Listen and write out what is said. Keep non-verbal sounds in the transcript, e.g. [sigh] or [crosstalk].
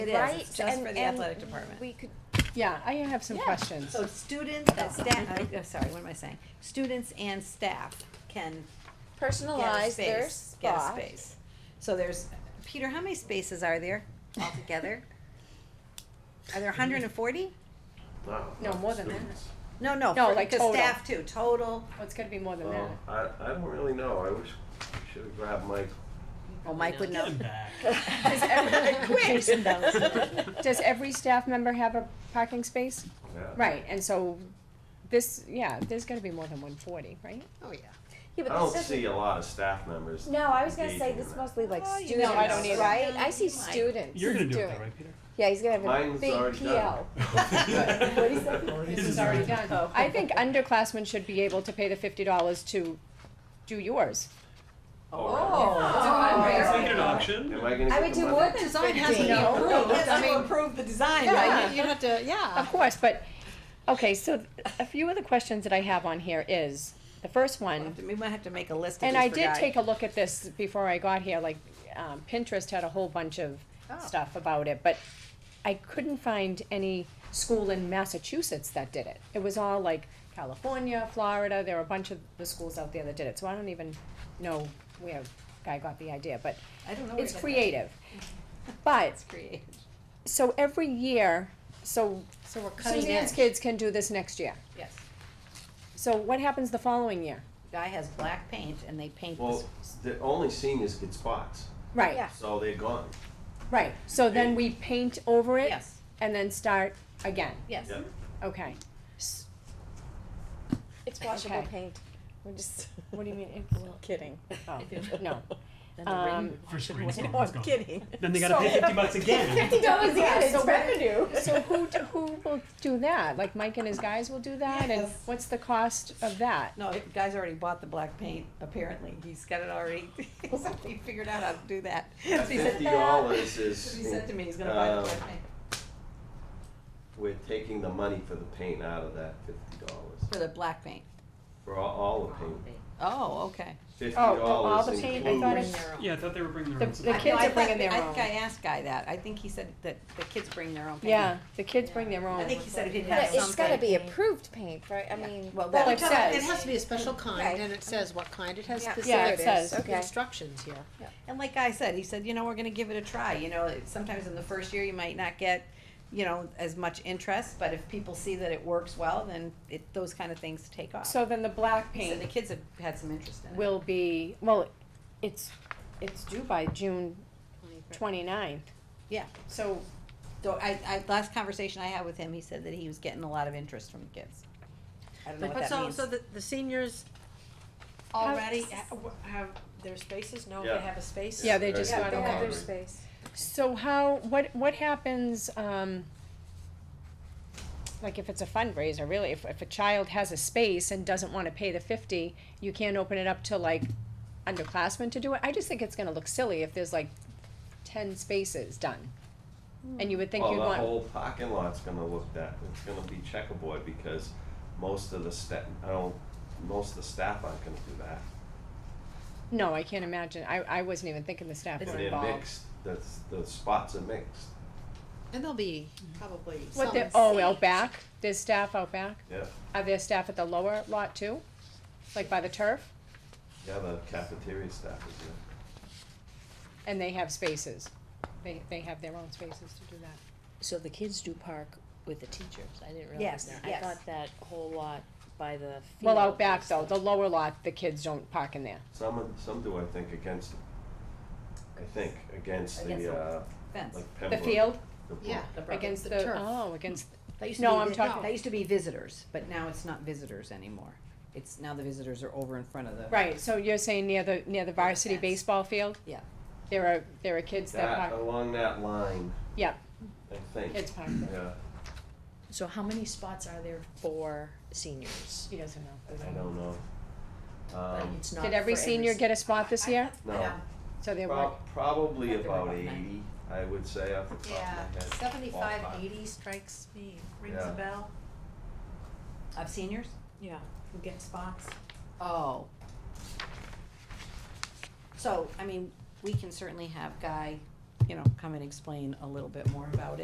It is. right? It's just And- for the and athletic department. We could, Yeah, I have some Yeah. questions. So students, uh, staff, uh, sorry, what am I saying? Students and staff can get a personalize their space, get a spot. space. So there's, Peter, how many spaces are there altogether? Are there hundred and forty? Wow. No, more than that. students. No, no, No, for, like to total. staff too, total. Well, it's gotta be more than that. Well, Oh. I, I don't really know. I wish, should have grabbed Mike. Well, Mike would know. [laughs] Quick. Jason knows. Does every staff member have a parking space? Yeah. Right, and so this, yeah, there's gotta be more than one forty, right? Oh, yeah. Yeah, I but don't this see doesn't, a lot of staff members. no, I was gonna say engaging this is in that. mostly like Oh, you students, know, I don't either. right? I see You might. students You're gonna do Do it it. though, right, Peter? Yeah, he's gonna have a Mine's big already PO. [laughs] done. [laughs] What is [laughs] that? This is already done. I think underclassmen should be able to pay the fifty dollars to do yours. It's like an [laughs] auction. Am I gonna I get would the do money? more than Design has to be No. approved, No, has I to mean- approve the design, Yeah, right? you- you have to, yeah. Ah. Of course, but, okay, so a few of the questions that I have on here is, the first one, We might have to make a list of and these I for did Guy. take a look at this before I got here, like, um, Pinterest had a whole bunch of stuff about it, but I couldn't find any school in Massachusetts that did it. It was all like California, Florida, there were a bunch of the schools out there that did it, so I don't even know where Guy got the idea, but I don't know. it's creative. But, It's creative. so every year, so So we're cutting Suzanne's edge. kids can do this next year. Yes. So what happens the following year? Guy has black paint and they paint Well, this. the only seniors get spots, Right, Yeah. so they're gone. right. So then we paint over it Yes, and then start again. yes. Yeah. Okay. It's washable Okay. paint. We're just What do you mean? kidding. Oh, [laughs] [laughs] no. And the Um, For screens, rain- it's No, I'm gone. kidding. Then they gotta pay fifty bucks again. dollars again, it's revenue. [laughs] so who d- who will do that? Like Mike and his guys will do that, and Yes. what's the cost of that? No, it- Guy's already bought the black paint, apparently. He's got it already, [laughs] he's already figured out how to do that. [laughs] At He said- [laughs] Fifty dollars is. He said to me, he's gonna buy the um, black paint We're taking the money for the paint out of that fifty dollars, for the black paint. for all, all the paint. Oh, okay. Fifty Oh, oh, all dollars the paint. I thought includes, it, Yeah, I thought they were bringing The- their own. the I- supplies. kids I are thought- bringing their I own. think I asked Guy that. I think he said that the kids bring their own paint. yeah, the kids bring their own. I think he said he'd have But something. it's gotta be approved paint, right? I Yeah. mean. Well, Well, that- it says. It has to be a special Right. kind, and it says what kind, it has Yeah. specific. Yeah, it says. Okay. Instructions here. And like I said, he said, you know, we're gonna give it a try, you know, it- sometimes in the first year, you might not get, you know, as much interest, but if people see that it works well, then it, those kind of things take off. So then the black He paint. said the kids have had some interest in it. will be, well, it's, it's due by June twenty-ninth. Yeah. So, So I, I, last conversation I had with him, he said that he was getting a lot of interest from the kids. I don't know But what that so, means. so the, the seniors already ha- w- have their spaces, know Yeah. they have a space? yeah, they just Yeah, Yeah, got they have over. their over. space. So how, what, what happens, um, like if it's a fundraiser, really, if, if a child has a space and doesn't wanna pay the fifty, you can't open it up to like underclassmen to do it? I just think it's gonna look silly if there's like ten spaces done. And you would think well, you'd Oh, Hmm. the want, whole parking lot's gonna look that, it's gonna be checkerboard, because most of the sta- I don't, most of the staff aren't gonna do that. no, I can't imagine, I, I wasn't even thinking the staff were And they're involved. mixed, that's, the spots are mixed, And they'll be probably What some the, oh, out seat. back, there's staff out back? yeah, Are there staff at the lower lot too? Like by the turf? yeah, the cafeteria staff is there. And they have spaces. They, they have their own spaces to do that. So the kids do park with the teachers, I didn't Yes, realize that. I yes. thought that whole lot by the field. Well, out back was though, like- the lower lot, the kids don't park in there. Some, of- some do, I think, against, I think, against Against the, the- uh, Fence. like The Pembroke. field, the brook. Yeah. The brook. against the the, turf. oh, [laughs] against, That used to no, be I'm vi- talking, That used to be visitors, but now it's not visitors anymore. It's, now the visitors are over in front of the. right, so you're saying near the, near the varsity fence. baseball field? Yeah. There are, there are kids that That, park, along that line. Yeah. I think, it's parked there. yeah, So how many spots are there for seniors? He doesn't know. I don't know. Like, Um, it's not Did every for senior s- get a spot this year? no, So there were, prob- probably They're about about eighty, I would say, off the top of my Yeah, head. Ballpark. seventy-five, eighty strikes me, rings Yeah. a bell. Of seniors? Yeah. Who get spots? Oh. So, I mean, we can certainly have Guy you know, come and explain a little bit more about it.